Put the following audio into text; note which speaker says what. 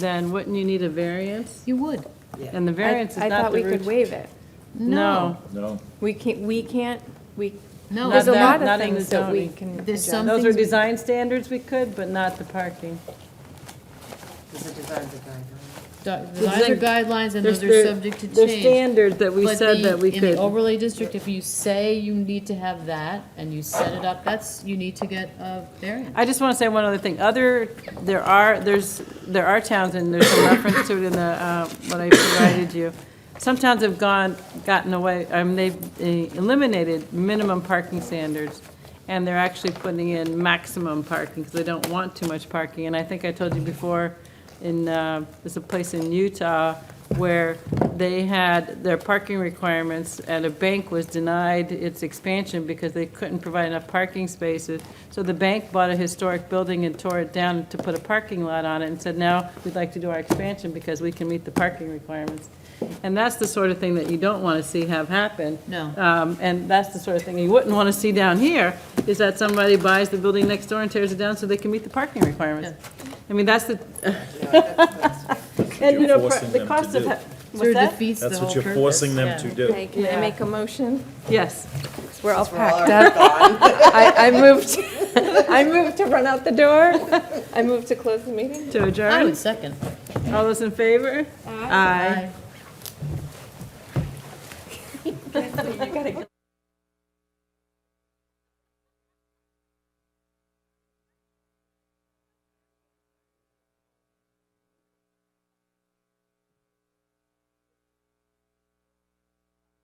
Speaker 1: then wouldn't you need a variance?
Speaker 2: You would.
Speaker 1: And the
Speaker 3: I-
Speaker 1: variance is
Speaker 3: I
Speaker 1: not
Speaker 3: thought
Speaker 1: the
Speaker 3: we could
Speaker 1: root.
Speaker 3: waive it.
Speaker 1: No,
Speaker 4: No.
Speaker 3: We can't, we can't, we,
Speaker 2: No.
Speaker 3: there's a
Speaker 1: Not that-
Speaker 3: lot
Speaker 1: not
Speaker 3: of
Speaker 1: in
Speaker 3: things
Speaker 1: the
Speaker 3: that we
Speaker 1: zoning.
Speaker 3: can
Speaker 2: There's
Speaker 3: adjust.
Speaker 2: some-
Speaker 1: those are
Speaker 2: things we-
Speaker 1: design standards we could, but not the parking.
Speaker 5: Because the design's a guideline.
Speaker 2: Du- Those are guidelines and those are
Speaker 1: There's-
Speaker 2: subject to change.
Speaker 1: There's standards that we
Speaker 2: But
Speaker 1: said
Speaker 2: the-
Speaker 1: that we
Speaker 2: In the
Speaker 1: could.
Speaker 2: overlay district, if you say you need to have that and you set it up, that's, you need to get a variance.
Speaker 1: I just want to say one other thing. Other, there are, there's, there are towns, and there's some reference to it in the, uh, what I provided you. Some towns have gone, gotten away, I mean, they've eh, eliminated minimum parking standards, and they're actually putting in maximum parking, because they don't want too much parking. And I think I told you before, in, uh, there's a place in Utah where they had their parking requirements, and a bank was denied its expansion because they couldn't provide enough parking spaces. So the bank bought a historic building and tore it down to put a parking lot on it, and said, now, we'd like to do our expansion because we can meet the parking requirements. And that's the sort of thing that you don't want to see have happen.
Speaker 2: No.
Speaker 1: Um, And that's the sort of thing you wouldn't want to see down here, is that somebody buys the building next door and tears it down so they can meet the parking requirements. I mean, that's the, and you know,
Speaker 4: You're forcing
Speaker 1: the
Speaker 4: them
Speaker 1: cost
Speaker 4: to
Speaker 1: of,
Speaker 4: do.
Speaker 1: ha-
Speaker 2: Sort
Speaker 1: what's
Speaker 2: of
Speaker 1: that?
Speaker 2: defeats the
Speaker 4: That's
Speaker 2: whole
Speaker 4: what
Speaker 2: purpose.
Speaker 4: you're forcing them to do.
Speaker 3: Okay, Can I make a motion?
Speaker 1: Yes.
Speaker 3: We're all packed up. I, I moved, I moved to run out the door. I moved to close the meeting.
Speaker 1: To
Speaker 2: I
Speaker 1: adjourn?
Speaker 2: would second.
Speaker 1: All those in favor? Aye.
Speaker 2: Aye.